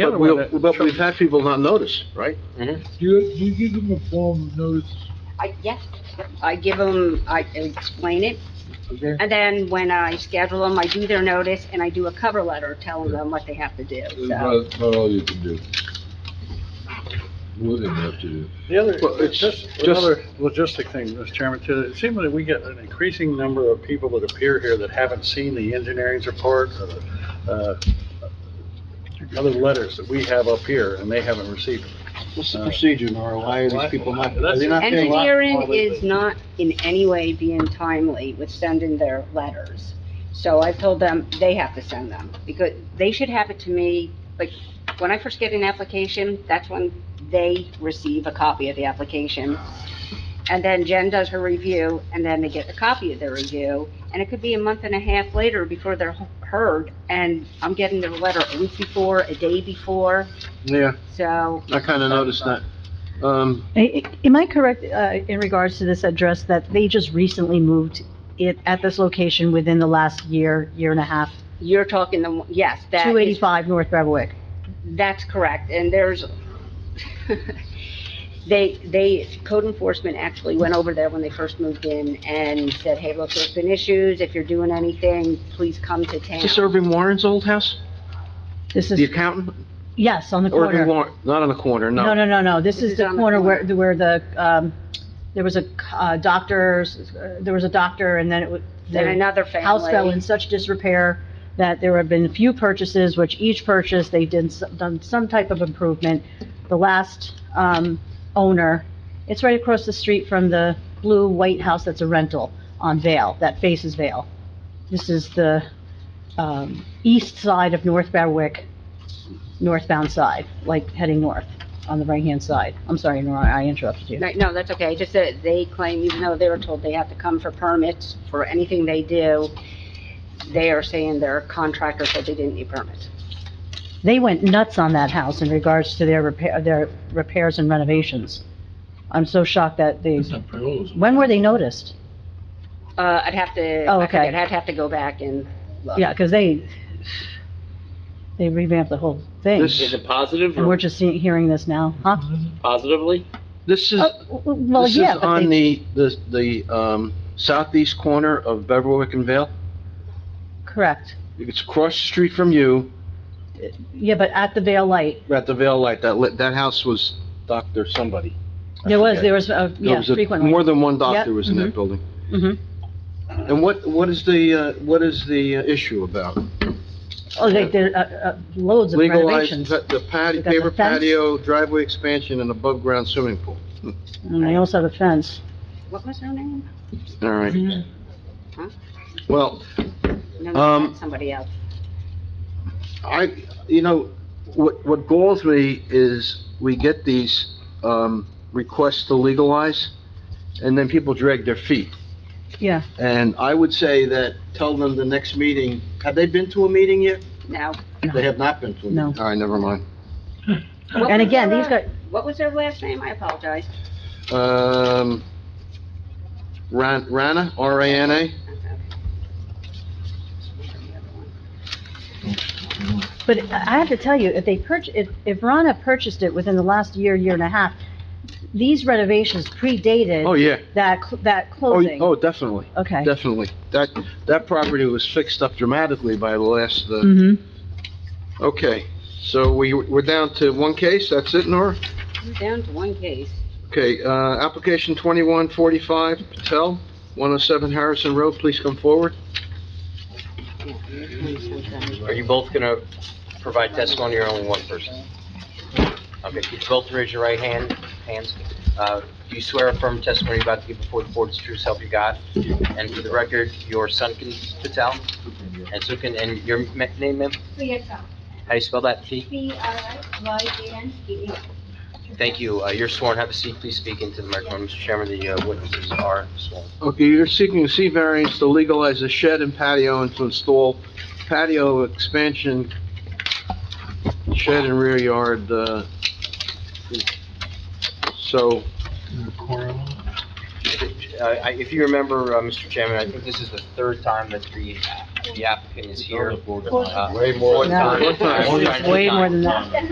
The other But we'll- one that- But we've had people not notice, right? Do you, do you give them a form of notice? I, yes, I give them, I explain it, Okay. and then when I schedule them, I do their notice, and I do a cover letter telling them what they have to do, That's so. about, about all you can do. More than you have to do. The other, Well, it's just just- another logistic thing, Mr. Chairman, too. It seems that we get an increasing number of people that appear here that haven't seen the engineering's report or the, uh, other letters that we have up here, and they haven't received them. What's the procedure, Nora? Why are these people not, are they not Engineering is not in any way being timely with sending their letters. So I told them they have to send them, because they should have it to me, like, when I first get an application, that's when they receive a copy of the application. And then Jen does her review, and then they get a copy of their review, and it could be a month and a half later before they're heard, and I'm getting their letter a week before, a day before, Yeah, so, I kinda noticed that. Um, I- I- Am I correct uh, in regards to this address that they just recently moved it at this location within the last year, year and a half? you're talking the, yes, that is 285 North Beverwick. That's correct, and there's, they, they, code enforcement actually went over there when they first moved in and said, hey, look, there's been issues, if you're doing anything, please come to is this town. Irving Warren's old house? This The is, accountant? yes, on the Irving corner. Warren, not on the corner, No, no, no, no, this This is is the on the corner where, corner. where the, um, there was a uh, doctor's, uh, there was a doctor and then it was. Then another house fell in family, such disrepair that there have been few purchases, which each purchase, they did, s- done some type of improvement. The last, um, owner, it's right across the street from the blue white house that's a rental on Vale, that faces Vale. This is the, um, east side of North Berwick, northbound side, like heading north on the right-hand side. I'm sorry, Nora, I interrupted you. No, no, that's okay, just that they claim, even though they were told they have to come for permits for anything they do, they are saying their contractor said they didn't need permits. they went nuts on that house in regards to their repair, their repairs and renovations. I'm so shocked that they, It's not priorities. when were they noticed? Uh, I'd have to, Oh, I okay. forget, I'd have to go back and look. Yeah, because they, they revamped the whole thing, This, Is it positive and we're or just seeing, hearing this now, huh? positively? this is, Oh, w- Well, this is yeah, but on they, the, the, the, um, southeast corner of Beverwick and Vale. correct. It's across the street from you, Yeah, but at the Vale Light, at the Vale Light, that lit, that house was Dr. somebody. I there was, forget. there was, uh, There yeah, was a- frequently. More than one doctor Yep, was in that mhm. building. Mhm. And what, what is the, uh, what is the uh, issue about? Oh, they did, uh, uh, loads of Legalized renovations. pa- the patio, We got the paper fence. patio, driveway expansion, and above-ground swimming pool. And they also have a fence. What was her name? All right. Mm-hmm. Huh? Well, No, Um, no, that's somebody else. I, you know, what, what galls me is we get these, um, requests to legalize, and then people drag their feet. Yeah. And I would say that, tell them the next meeting, have they been to a meeting yet? No. They have not been to a meeting. No. All right, never mind. What And was again, their, these uh, guys, What was their last name? I apologize. Um, Ran, Rana, R-A-N-A? But I have to tell you, if they purch, if, if Rana purchased it within the last year, year and a half, these renovations Oh, predated yeah. that, cl- that Oh, closing. oh, definitely, Okay. definitely. That, that property was fixed up dramatically by the last, uh, hmm okay. So we, we're down to one case, that's it, Nora? We're down to one case. Okay, uh, application 2145 Patel, 107 Harrison Road, please come forward. Yeah, there's something. Are you both gonna provide testimony or only one person? Okay, if you both raise your right hand, hands. Uh, do you swear or affirm testimony you're about to give before the board is true self you got? And for the record, your son can Patel and Sukin, and your ma- name, ma'am? Priyanka, How do you spell that? T? P-R-I-Y-A-N-K-A. Thank you. Uh, you're sworn. Have a seat. Please speak into the microphone, Mr. Chairman. The uh, witnesses are sworn. Okay, you're seeking a C variance to legalize a shed and patio and to install patio expansion, shed and rear yard, uh, so, Uh, I- If you remember, uh, Mr. Chairman, I think this is the third time that the The applicant is here. Four Uh, Way more. fourth time. No, Fourth time. Mm-hmm. Way more than that.